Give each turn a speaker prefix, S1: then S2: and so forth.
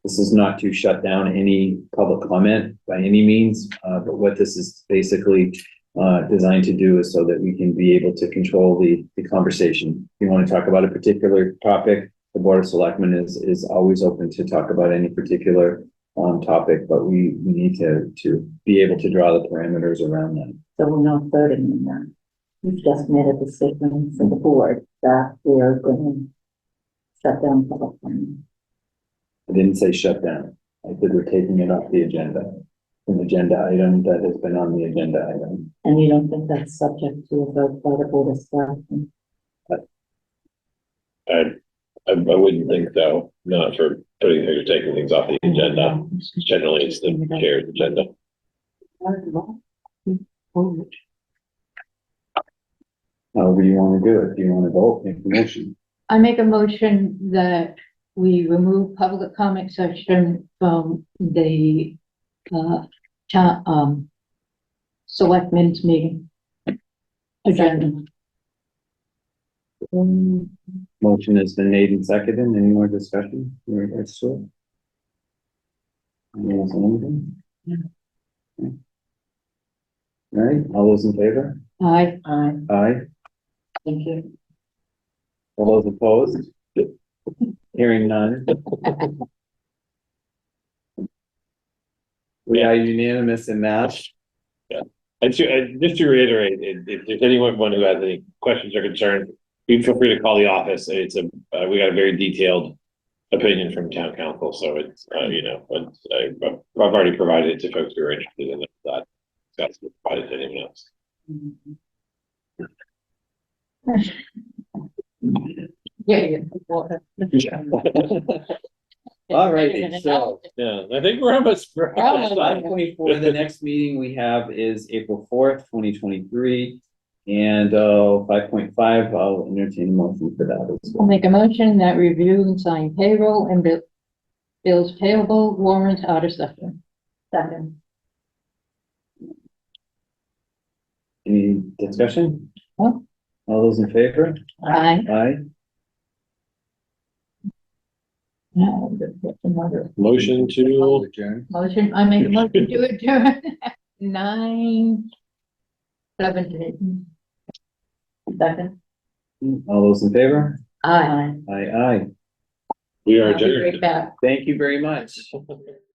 S1: This is not to shut down any public comment by any means, uh, but what this is basically uh, designed to do is so that we can be able to control the, the conversation. If you want to talk about a particular topic, the Board of Selectmen is, is always open to talk about any particular um, topic, but we, we need to, to be able to draw the parameters around that.
S2: So we're not voting on that. We've just made a decision from the board that we are going to shut down public hearing.
S1: I didn't say shut down. I said we're taking it off the agenda. An agenda item that has been on the agenda item.
S2: And you don't think that's subject to a vote by the board of selectmen?
S3: I, I, I wouldn't think so, not for putting, or taking things off the agenda. Generally, it's the chair's agenda.
S1: However you want to do it. Do you want to vote, make the motion?
S4: I make a motion that we remove public comment section from the, uh, town, um, selectmen's meeting. Agenda.
S2: Um,
S1: Motion has been made and seconded. Any more discussion? in regards to it? Anyone else on anything? Okay. All right, all those in favor?
S4: I,
S2: Aye,
S1: Aye.
S2: thank you.
S1: All those opposed? Hearing none. We are unanimous in that.
S3: And to, and just to reiterate, if, if there's anyone who has any questions or concerns, you feel free to call the office. It's a, uh, we got a very detailed opinion from town council, so it's, uh, you know, but I, I've already provided it to folks who are interested in that. That's provided to anyone else.
S4: yeah, yeah.
S1: All righty, so.
S3: Yeah, I think we're almost. we're almost
S1: Five
S3: done.
S1: point four, the next meeting we have is April fourth, twenty twenty-three. And uh, five point five, I'll entertain a motion for that as
S4: I'll
S1: well.
S4: make a motion that review and sign payroll and bill, bills payable warrant out of session.
S2: Second,
S1: Any discussion?
S4: No.
S1: All those in favor?
S4: I,
S1: Aye.
S4: no, that's another
S3: Motion to,
S1: Adjourn.
S4: motion, I make a motion to adjourn at nine seventeen.
S2: second.
S1: All those in favor?
S4: Aye.
S2: Aye.
S1: Aye, aye.
S3: we are
S4: I'll be right
S3: adjourned.
S4: back.
S1: Thank you very much.